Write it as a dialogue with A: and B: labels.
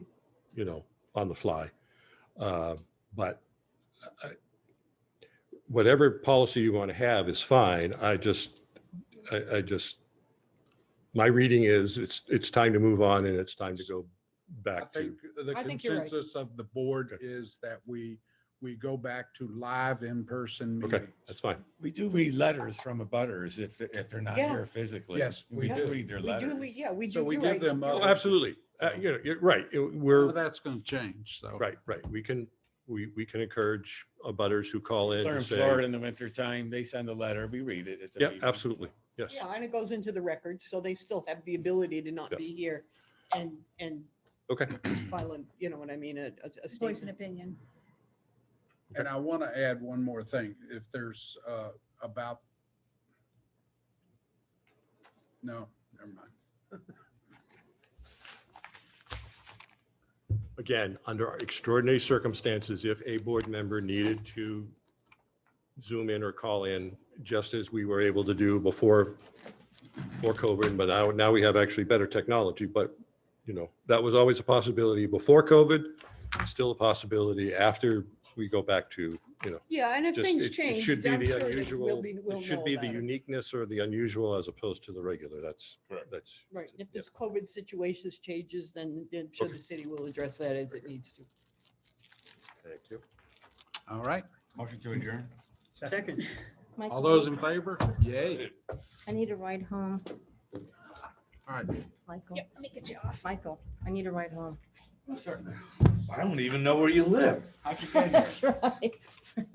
A: you know, on the fly. Uh, But I- whatever policy you want to have is fine. I just, I, I just, my reading is it's, it's time to move on and it's time to go
B: I
A: back to.
B: think the
C: I think you're right.
B: consensus of the board
A: Okay.
B: is that we, we go back to live in-person
A: Okay,
B: meetings.
A: that's fine.
D: We do read letters from the butters if, they- if they're not
C: Yeah.
D: here physically.
B: Yes, we do.
D: Read their
C: We do,
D: letters.
C: we- yeah, we do.
B: So we
C: you're
B: give
C: right.
B: them, uh,
A: Oh, Absolutely. Uh, You know, you're right. It- We're,
B: Well, That's going to change, so.
A: right, right. We can, we, we can encourage butters who call in
D: They're in
A: and
D: Florida
A: say,
D: in the wintertime. They send a letter. We read it. at the
A: yeah,
D: meeting.
A: absolutely. Yes.
C: Yeah, and it goes into the record, so they still have the ability to not
A: Yeah.
C: be here and, and
A: Okay.
C: file, an- you know what I mean, a, a- a
E: voice an
C: statement.
E: opinion.
B: And I want to add one more thing, if there's uh, about. No, never mind.
A: again, under extraordinary circumstances, if a board member needed to zoom in or call in, just as we were able to do before, before COVID, but now, now we have actually better technology, but, you know, that was always a possibility before COVID, still a possibility after we go back to, you know,
C: Yeah, and if
A: just,
C: things
A: it-
C: change.
A: it should be
C: I'm sure
A: the
C: that we'll
A: unusual,
C: be- we'll
A: it
C: know
A: should be the
C: about it.
A: uniqueness or the unusual as opposed to the regular. That's,
D: Correct.
A: that's.
C: Right, and if
A: yeah.
C: this COVID situation changes, then then I'm sure
A: Okay.
C: the city will address that as it needs to.
A: Thank you.
B: All right,
D: Motion to adjourn.
C: Second.
E: Mike,
B: all those in favor? Yay.
E: I need a ride home,
B: All right.
E: Michael. Let me get you off. Michael, I need a ride home.
F: I don't even know where you live.
E: That's right.